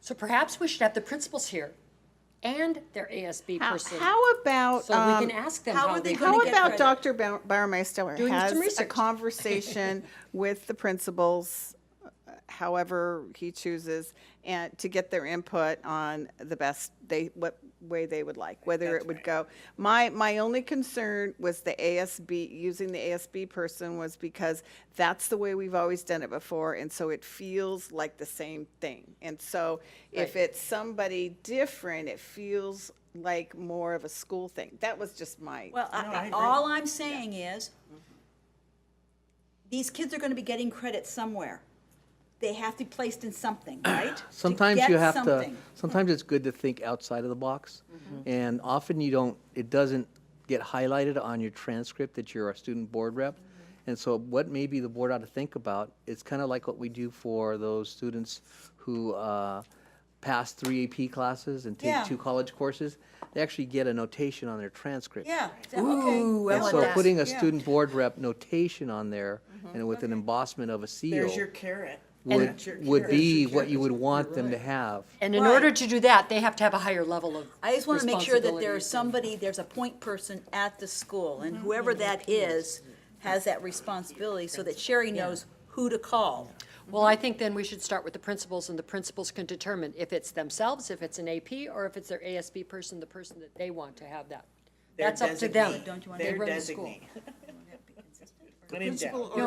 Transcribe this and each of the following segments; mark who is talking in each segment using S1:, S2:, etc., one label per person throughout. S1: So perhaps we should have the principals here and their ASB
S2: How-
S1: person.
S2: Uh, How about,
S1: So we
S2: um,
S1: can ask them
S3: how
S1: how
S3: are
S1: they.
S3: they
S1: can
S3: gonna
S2: how
S3: get
S2: about
S3: credit.
S2: Dr. Bau- Bauermeister
S1: Doing some
S2: has a
S1: research.
S2: conversation with the principals, uh, however he chooses, and to get their input on the best, they, what way they would like, whether it would go. My, my only concern was the ASB, using the ASB person was because that's the way we've always done it before, and so it feels like the same thing. And so if
S1: Right.
S2: it's somebody different, it feels like more of a school thing. That was just my.
S3: Well, I- all I'm saying is,
S4: Mm-hmm.
S3: these kids are gonna be getting credit somewhere. They have to be placed in something, right? To
S4: Sometimes
S3: get
S4: you have to,
S3: something. Mm-hmm.
S4: sometimes it's good to think outside of the box. And often you don't, it doesn't get highlighted on your transcript that you're a student board rep.
S3: Mm-hmm.
S4: And so what maybe the board ought to think about, it's kind of like what we do for those students who uh, pass three AP classes and take
S3: Yeah.
S4: two college courses. They actually get a notation on their transcript.
S3: Yeah,
S1: I
S3: okay.
S4: And
S1: want
S4: so
S1: that.
S4: putting a
S3: Yeah. Mm-hmm.
S4: student board rep notation on there and with an embossment of a seal
S5: There's your carrot. That's your
S4: would, would
S5: carrot.
S4: be
S5: There's your
S4: what you would
S5: carrot.
S4: want them to have.
S1: And in
S3: Right.
S1: order to do that, they have to have a higher level of
S3: I just wanna make sure that
S1: responsibilities
S3: there's
S1: and-
S3: somebody, there's a point person at the school,
S4: Mm-hmm.
S3: and whoever that is has that responsibility, so that Sherry knows who to call.
S1: Well, I think then we should start with the principals, and the principals can determine if it's themselves, if it's an AP, or if it's their ASB person, the person that they want to have that.
S5: Their
S1: That's up to them.
S5: designee.
S3: Don't you wanna-
S1: They
S5: Their
S1: run the school.
S5: designee. When in doubt.
S1: No, I, don't-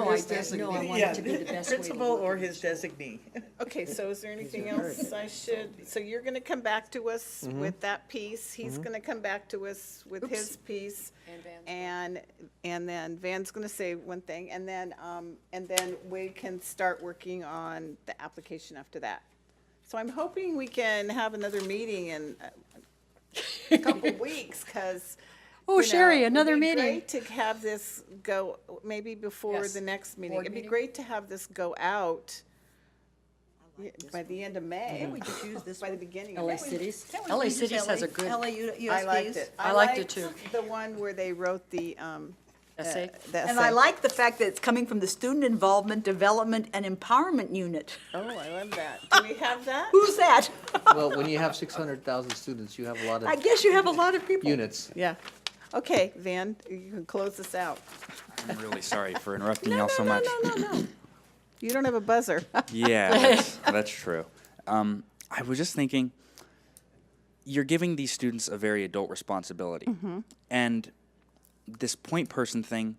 S1: no, I want it to be the
S5: Yeah,
S1: best way. to
S5: Principal
S1: work.
S5: or his designee.
S2: Okay, so is there anything else I should, so you're gonna come back to us
S1: Mm-hmm.
S2: with that piece, he's gonna come back to us with his piece. And, and then Van's gonna say one thing, and then, um, and then we can start working on the application after that. So I'm hoping we can have another meeting in a couple weeks, cause.
S1: Oh,
S2: you know,
S1: Sherry,
S2: it'd
S1: another
S2: be
S1: meeting.
S2: great To have this go, maybe before
S1: Yes,
S2: the next meeting,
S1: board
S2: it'd be
S1: meeting.
S2: great to have this go out. Yeah, By the end of May,
S3: We just use this
S2: by the
S3: one.
S2: beginning of
S1: LA
S2: May.
S1: cities,
S3: Can't we
S1: LA
S3: use
S1: cities has a
S3: LA
S1: good
S3: U- USBs?
S2: I liked it.
S1: I liked it
S2: The one where they wrote the, um, uh,
S1: essay.
S2: the
S3: And I
S2: essay.
S3: like the fact that it's coming from the Student Involvement, Development, and Empowerment Unit.
S2: Oh, I love that. Do we have that?
S3: Who's that?
S4: Well, when you have six hundred thousand students, you have a lot
S3: I
S4: of
S3: guess you have a lot of people.
S4: units.
S2: Yeah. Okay, Van, you can close this out.
S6: I'm really sorry for interrupting y'all so much.
S2: No, no, no. You don't have a buzzer.
S6: Yeah, that's, that's true. Um, I was just thinking, you're giving these students a very adult responsibility,
S2: Mm-hmm.
S6: and this point person thing.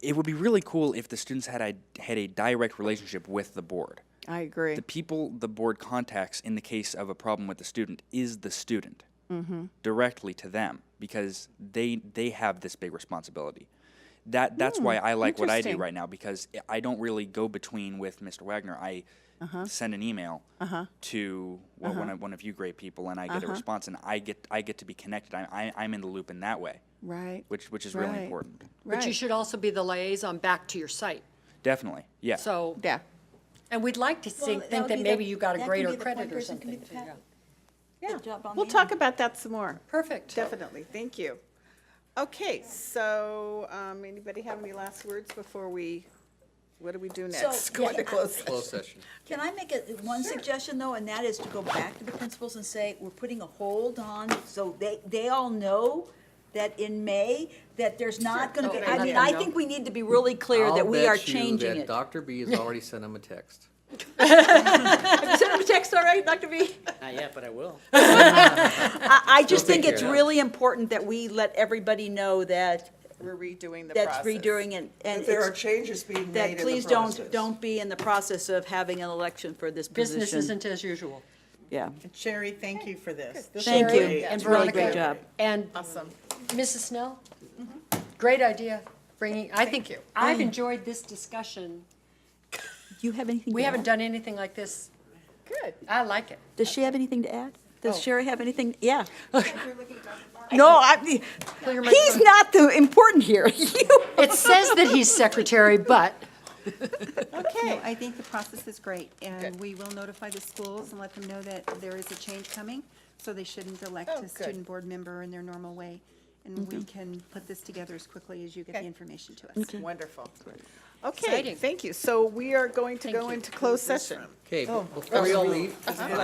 S6: It would be really cool if the students had a had a direct relationship with the board.
S2: I agree.
S6: The people the board contacts in the case of a problem with the student is the student
S2: Mm-hmm.
S6: directly to them because they they have this big responsibility. That that's why I like what I
S2: Hmm,
S6: do
S2: interesting.
S6: right now because I- I don't really go between with Mr. Wagner. I
S2: Uh-huh.
S6: send an email to well, one of one of you great people, and I
S2: Uh-huh.
S6: get a response, and I get I get to be connected. I, I I'm in the loop in that way,
S2: Right.
S6: which which is
S2: Right.
S6: really important.
S1: But you
S2: Right.
S1: should also be the liaison back to your site,
S6: Definitely, yeah.
S1: so.
S2: Yeah.
S1: And we'd like to think,
S3: that
S1: think
S3: would
S1: that
S3: be the-
S1: maybe you got
S3: that
S1: a
S3: can
S1: greater
S3: be the
S1: credit
S3: point
S1: or
S3: person can
S1: something.
S3: be the
S1: too, yeah.
S3: pat-
S2: Yeah.
S3: job on
S2: We'll
S3: the
S2: talk about that some more.
S1: Perfect.
S2: Definitely. Thank you. Okay, so, um, anybody have any last words before we, what do we do next?
S3: yeah, I-
S4: Closed session.
S3: Can I make a, one suggestion though, and that is to go back to the principals and say, we're putting a hold on, so they, they all know that in May, that there's not gonna be,
S5: Oh,
S1: Okay,
S3: I
S1: let
S3: mean,
S1: them
S3: I
S1: know.
S3: think we need to be really clear that we are changing it.
S4: Dr. B has already sent him a text.
S3: Send them a text, all right, Dr. B?
S5: Not yet, but I will.
S3: I, I just
S4: take
S3: think it's
S4: care of it.
S3: really important that we let everybody know that,
S2: We're redoing the process.
S3: that's redoing it, and
S5: If there are
S3: it's,
S5: changes being made in
S3: that
S5: the
S3: please
S5: process.
S3: don't, don't be in the process of having an election for this position.
S1: Business isn't as usual.
S3: Yeah,
S5: Sherry, thank you for this. This
S3: thank
S5: was
S3: you,
S5: great.
S1: And
S3: it's really
S1: Veronica.
S3: great job.
S1: And Mrs. Snell, great idea, bringing, I think, I've enjoyed this discussion.
S3: Do you have anything
S1: We
S3: to
S1: haven't
S3: add?
S1: done anything like this. Good. I like it.
S3: Does she have anything to add? Does Sherry have anything? Yeah. No, I,
S1: your
S3: he's
S1: microphone.
S3: not the important here. You-
S1: It says that he's secretary, but
S7: No, I think the process is great, and we will notify the schools and let them know that there is a change coming, so they shouldn't elect
S2: Oh,
S7: a
S2: good.
S7: student board member in their normal way. And we can put this together as quickly as you get the information to us.
S2: Wonderful.
S1: Exciting.
S2: Okay, thank you. So we are going to go into closed session.
S1: Oh, Uh-huh.
S4: Okay, before we all leave,